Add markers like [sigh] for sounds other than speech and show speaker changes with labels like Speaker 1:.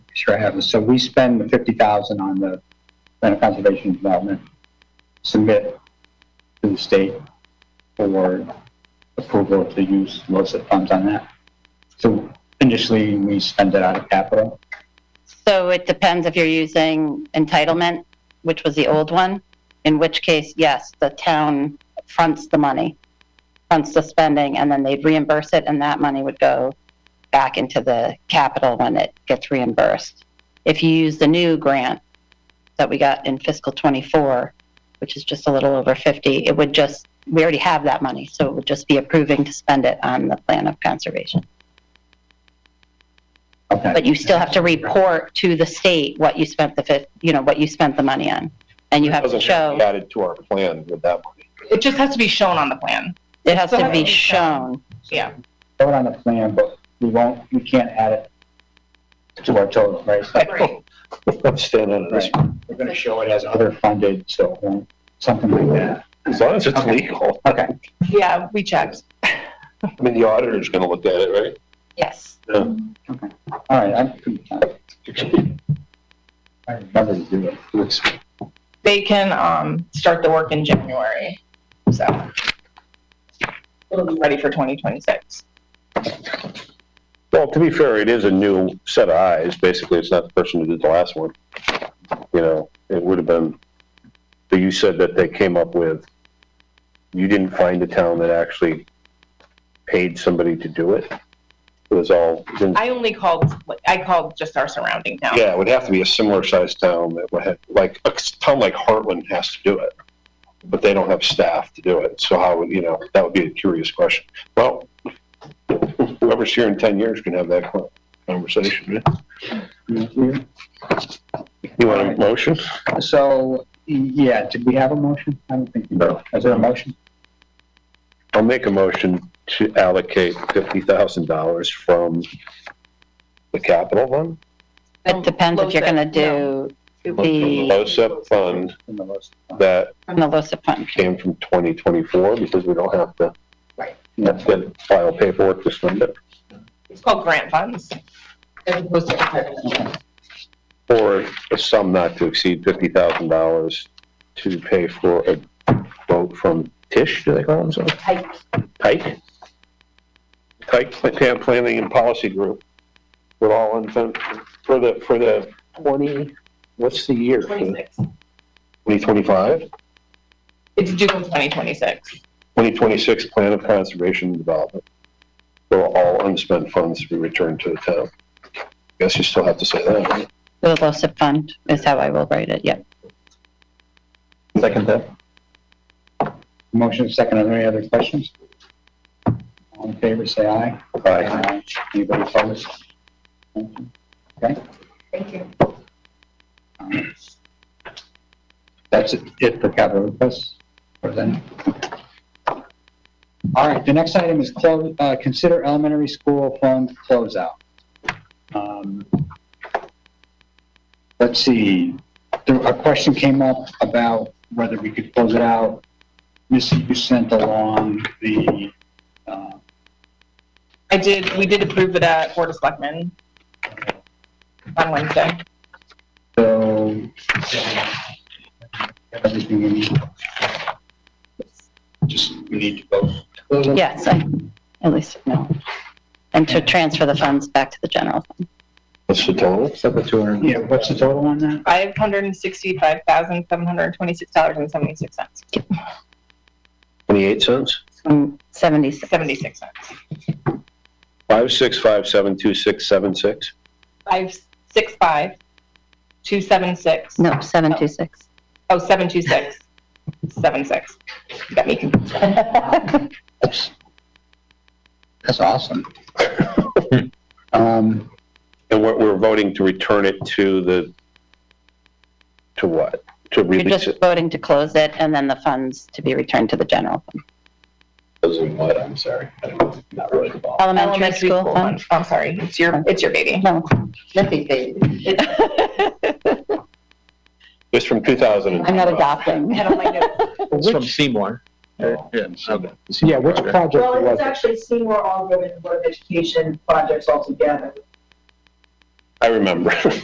Speaker 1: Sure I have. So we spend the fifty thousand on the land of conservation and development, submit to the state for approval to use LoCIP funds on that. So initially, we spend it out of capital.
Speaker 2: So it depends if you're using entitlement, which was the old one, in which case, yes, the town fronts the money, fronts the spending, and then they'd reimburse it, and that money would go back into the capital when it gets reimbursed. If you use the new grant that we got in fiscal '24, which is just a little over 50, it would just, we already have that money, so it would just be approving to spend it on the plan of conservation.
Speaker 1: Okay.
Speaker 2: But you still have to report to the state what you spent the fif, you know, what you spent the money on. And you have to
Speaker 3: Doesn't have to
Speaker 2: show,
Speaker 3: be added to our plan with that money.
Speaker 4: It just has to be shown on the plan.
Speaker 2: it has to
Speaker 4: Still
Speaker 2: be
Speaker 4: has to be shown.
Speaker 2: shown.
Speaker 4: Yeah.
Speaker 1: Throw it on the plan, but we won't, we can't add it to our total, right? So-
Speaker 4: Right.
Speaker 5: [laughs]
Speaker 3: I'm standing on this.
Speaker 1: Right. We're gonna show it as other funded, so it won't- something like that.
Speaker 3: As long as it's
Speaker 1: Okay.
Speaker 3: legal.
Speaker 1: Okay.
Speaker 4: Yeah, we checked.
Speaker 3: I mean, the auditor's gonna look at it, right?
Speaker 2: Yes.
Speaker 1: All right, I, I remember to do it.
Speaker 3: It's-
Speaker 4: They can um, start the work in January, so it'll be ready for 2026.
Speaker 5: Well, to be fair, it is a new set of eyes. Basically, it's not the person who did the last one. You know, it would have been, but you said that they came up with, you didn't find a town that actually paid somebody to do it? It was all,
Speaker 4: I only called, I called just our surrounding town.
Speaker 5: Yeah.
Speaker 3: Yeah, it would have to be a similar sized town that would have, like, a town like Heartland has to do it. But they don't have staff to do it, so how would, you know, that would be a curious question. Well, whoever's here in ten years can have that con- conversation. right?
Speaker 1: Thank you.
Speaker 5: you want a motion?
Speaker 1: So, yeah, did we have a motion? I don't think we did.
Speaker 5: No.
Speaker 1: Is there a motion?
Speaker 5: I'll make a motion to allocate fifty thousand dollars from the capital fund?
Speaker 2: It depends if you're going to do
Speaker 5: From the
Speaker 2: the,
Speaker 5: LoCIP fund
Speaker 1: In the list.
Speaker 5: that
Speaker 2: from the LoCIP fund.
Speaker 5: came from 2024 because we don't have to,
Speaker 4: Right.
Speaker 5: have to file paperwork to spend it.
Speaker 4: It's called grant funds. As opposed to entitlement.
Speaker 5: Or a sum not to exceed $50,000 to pay for a boat from Tish, do they call themselves?
Speaker 4: Pike.
Speaker 5: Pike? Pike Pla- Plan- Planning and Policy Group. We're all in, fin- for the, for the 20, what's the year?
Speaker 4: 26.
Speaker 5: 2025?
Speaker 4: It's due in 2026.
Speaker 5: 2026 Plan of Conservation and Development. There will all unspent funds be returned to the town. Guess you still have to say that. right?
Speaker 2: The LoCIP fund is how I will write it, yeah.
Speaker 3: Second that.
Speaker 1: Motion is second. Are there any other questions? All in favor, say aye.
Speaker 5: Aye.
Speaker 1: Anybody opposed? Thank you. Okay?
Speaker 4: Thank you.
Speaker 1: Um, That's it- it for capital requests for then. All right, the next item is close, uh, consider elementary school fund closeout. Um, Let's see, there, a question came up about whether we could close it out. Missy, you sent along the, uh,
Speaker 4: I did, we did approve it at Board of Selectmen on Wednesday.
Speaker 1: so. Everything we need. Just, we need to vote. to close it?
Speaker 2: Yes, I, at least, no. And to transfer the funds back to the general fund.
Speaker 5: What's the total?
Speaker 1: Yeah, what's the total on that?
Speaker 4: Five hundred and sixty-five thousand, seven hundred and twenty-six dollars and seventy-six cents,
Speaker 5: 28 cents?
Speaker 2: From 76,
Speaker 4: seventy-six cents.
Speaker 5: 565726676?
Speaker 4: Five, six, five, two, seven, six.
Speaker 2: no, 726.
Speaker 4: Oh, seven, two,
Speaker 2: [laughs]
Speaker 4: six, seven, six. Got me confused.
Speaker 1: That's, that's awesome. [laughs] Um,
Speaker 5: And we're, we're voting to return it to the, to what? To
Speaker 2: You're
Speaker 5: release
Speaker 2: just
Speaker 5: it?
Speaker 2: voting to close it and then the funds to be returned to the general fund.
Speaker 3: Those are what, I'm sorry. I'm not really
Speaker 2: Oh.
Speaker 3: involved.
Speaker 2: Elementary school fund?
Speaker 4: Oh, I'm sorry, it's your, it's your baby.
Speaker 2: No. Snippy baby. [laughs]
Speaker 5: It's from 2000.
Speaker 2: I'm not adopting.
Speaker 4: I don't like it.
Speaker 6: It's from Seymour. Yeah,
Speaker 1: yeah, which project
Speaker 7: Well,
Speaker 1: was
Speaker 7: it's
Speaker 1: it?
Speaker 7: actually Seymour All Women Board of Education projects altogether.
Speaker 5: I remember. [laughs]